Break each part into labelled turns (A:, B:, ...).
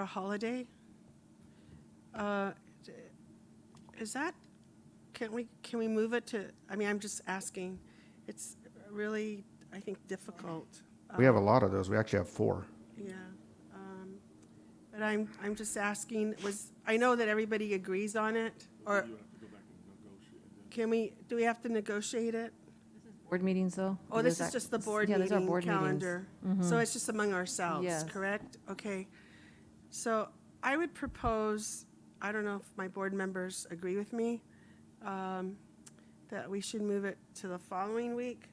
A: A holiday? Uh, Is that, can we, can we move it to, I mean, I'm just asking. It's really, I think, difficult.
B: We have a lot of those. We actually have four.
A: Yeah. um, But I'm, I'm just asking, was, I know that everybody agrees on it, or can we, do we have to negotiate it?
C: Board meetings, though?
A: Oh, this is just the board
C: Yeah, those are
A: meeting
C: board meetings. Mm-hmm.
A: calendar. So it's just among ourselves,
C: Yes.
A: correct? Okay. So I would propose, I don't know if my board members agree with me, um, that we should move it to the following week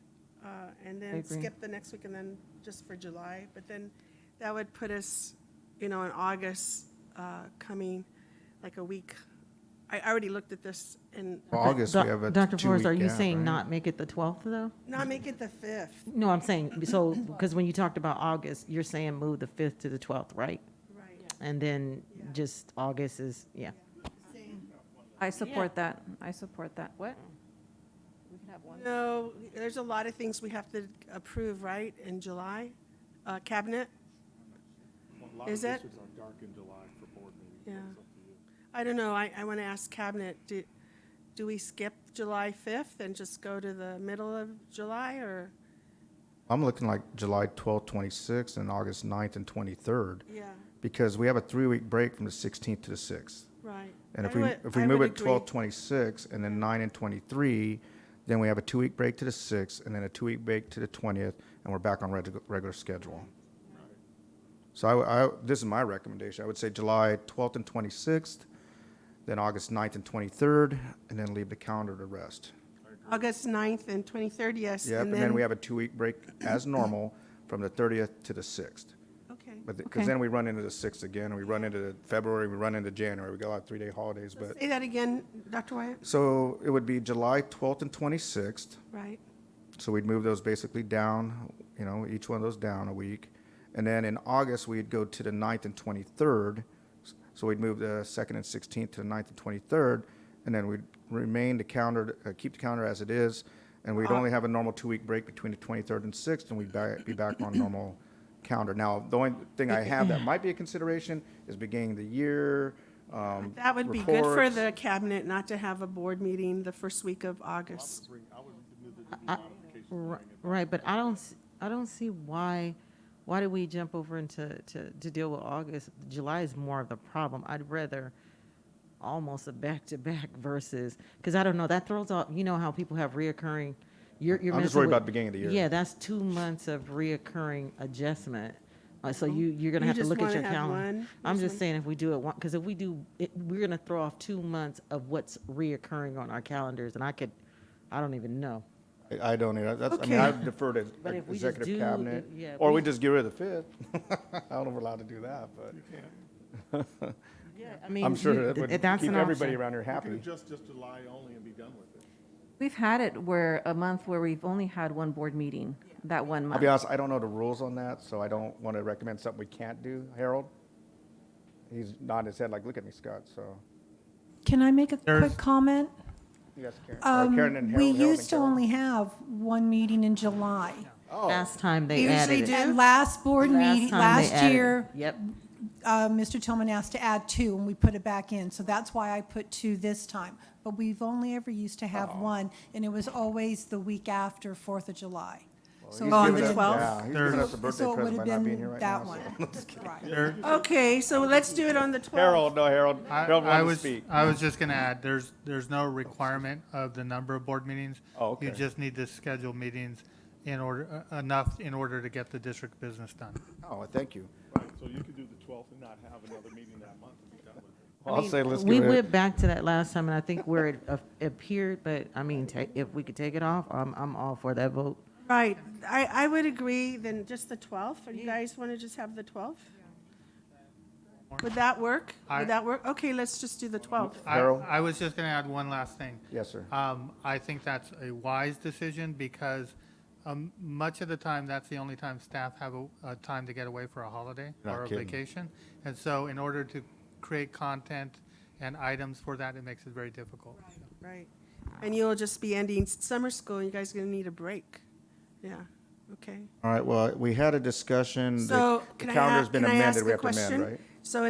A: uh, and
C: I
A: then
C: agree.
A: skip the next week and then just for July. But then that would put us, you know, in August uh, coming, like a week. I already looked at this and
B: Well, August,
D: Doc-
B: we have a
D: Dr. Forrest, are
B: two-week
D: you
B: gap,
D: saying
B: right?
D: not make it the 12th, though?
A: not make it the 5th,
D: No, I'm saying, so, because when you talked about August, you're saying move the 5th to the 12th, right?
A: right?
D: And then just August is, yeah.
C: I support that. I support that. What? We can have one.
A: No, there's a lot of things we have to approve, right, in July? Uh, Cabinet? Is it? Yeah. I don't know, I, I want to ask Cabinet, do, do we skip July 5th and just go to the middle of July, or?
B: I'm looking like July 12th, 26th, and August 9th and 23rd,
A: Yeah,
B: because we have a three-week break from the 16th to the 6th.
A: right.
B: And if
A: I
B: we,
A: would-
B: if we
A: I
B: move
A: would
B: it
A: agree.
B: 12, 26, and then 9 and 23, then we have a two-week break to the 6th, and then a two-week break to the 20th, and we're back on regu- regular schedule. So I w- I, this is my recommendation. I would say July 12th and 26th, then August 9th and 23rd, and then leave the calendar to rest.
A: August 9th and 23rd, yes.
B: Yep, and then we have a two-week break as normal from the 30th to the 6th.
A: Okay.
B: But, because
C: Okay.
B: then we run into the 6th again, and we run into February, we run into January. We got a lot of three-day holidays, but.
A: Say that again, Dr. Wyatt,
B: So it would be July 12th and 26th.
A: right?
B: So we'd move those basically down, you know, each one of those down a week. And then in August, we'd go to the 9th and 23rd. So we'd move the 2nd and 16th to the 9th and 23rd. And then we'd remain the calendar, uh, keep the calendar as it is. And we'd only have a normal two week break between the 23rd and 6th, and we'd ba- be back on normal calendar. Now, the only thing I have that might be a consideration is beginning of the year. Um,
A: That would be good for
B: reports.
A: the Cabinet not to have a board meeting the first week of August.
D: Ri- Right, but I don't, s- I don't see why, why did we jump over into, to, to deal with August? July is more of the problem. I'd rather almost a back-to-back versus, because I don't know, that throws off, you know how people have reoccurring, you're, you're
B: I'm just
D: messing
B: worried
D: with-
B: about beginning of the year.
D: Yeah, that's two months of reoccurring adjustment. Uh, So you, you're gonna
A: You
D: have to
A: just
D: look at
A: wanna
D: your
A: have
D: calendar.
A: one,
D: I'm
A: just
D: just
A: one.
D: saying if we do it one, because if we do, it, we're gonna throw off two months of what's reoccurring on our calendars, and I could, I don't even know.
B: I- I don't either. That's, I mean, I defer to
D: But if we just
B: executive
D: do-
B: cabinet,
D: if- yeah, if
B: or
D: we-
B: we just get rid of the fifth. I don't know if we're allowed to do that, but
D: Yeah, I mean,
B: I'm sure
D: you-
B: that would
D: th- that's
B: keep
D: an
B: everybody
D: option.
B: around here
E: We
B: happy.
E: could adjust just July only and be done with it.
C: We've had it where, a month where we've only had one board meeting, that one
B: I'll
C: month.
B: be honest, I don't know the rules on that, so I don't want to recommend something we can't do. Harold? He's nodding his head like, look at me, Scott, so.
F: Can I make a
G: There's-
F: quick comment?
B: You guys, Karen, or Oh, Karen and
F: Um, We
B: Harold, Harold and
F: used to
B: Karen.
F: only have one meeting in July.
D: Last time they
A: Usually
D: added it.
A: do.
F: At last board
D: time
F: meeting,
D: they
F: last
D: added it.
F: year,
D: Yep.
F: uh, Mr. Tillman asked to add two, and we put it back in. So that's why I put two this time. But we've only ever used to have
B: Oh.
F: one, and it was always the week after Fourth of July. So
B: He's
F: it
A: on
B: giving
A: the
B: us-
A: 12th?
B: Yeah, he's
G: There's-
B: giving us a birthday
F: So it would
B: present by
F: have
B: not being here
F: been
B: right
F: that
B: now.
F: one.
B: so.
F: Right.
A: Okay, so let's do it on the 12th.
B: Harold, no, Harold,
G: I,
B: Harold
G: I
B: wanted to
G: was,
B: speak.
G: I was just gonna add, there's, there's no requirement of the number of board meetings.
B: Oh, okay.
G: You just need to schedule meetings in order, uh, enough in order to get the district business done.
B: Oh, thank you.
E: Right, so you could do the 12th and not have another meeting that month and be done with it.
B: Well, I'll say let's
D: We
B: get rid
D: went
B: of.
D: back to that last time, and I think where it a- appeared, but I mean, ta- if we could take it off, I'm, I'm all for that vote.
A: Right, I, I would agree, then just the 12th, or you guys want to just have the 12th? Would that work?
G: I-
A: Would that work? Okay, let's just do the 12th.
G: I,
B: Harold?
G: I was just gonna add one last thing.
B: Yes, sir.
G: Um, I think that's a wise decision because, um, much of the time, that's the only time staff have a, a time to get away for a holiday
B: Not
G: or a
B: kidding.
G: vacation. And so in order to create content and items for that, it makes it very difficult.
A: Right, and you'll just be ending s- summer school, and you guys are going to need a break. Yeah, okay.
B: All right, well, we had a discussion. The
A: So
B: the
A: can I,
B: Mm, calendar's
A: a-
B: been
A: can I
B: amended.
A: ask
B: We
A: a
B: have to amend,
A: question?
B: right?
A: So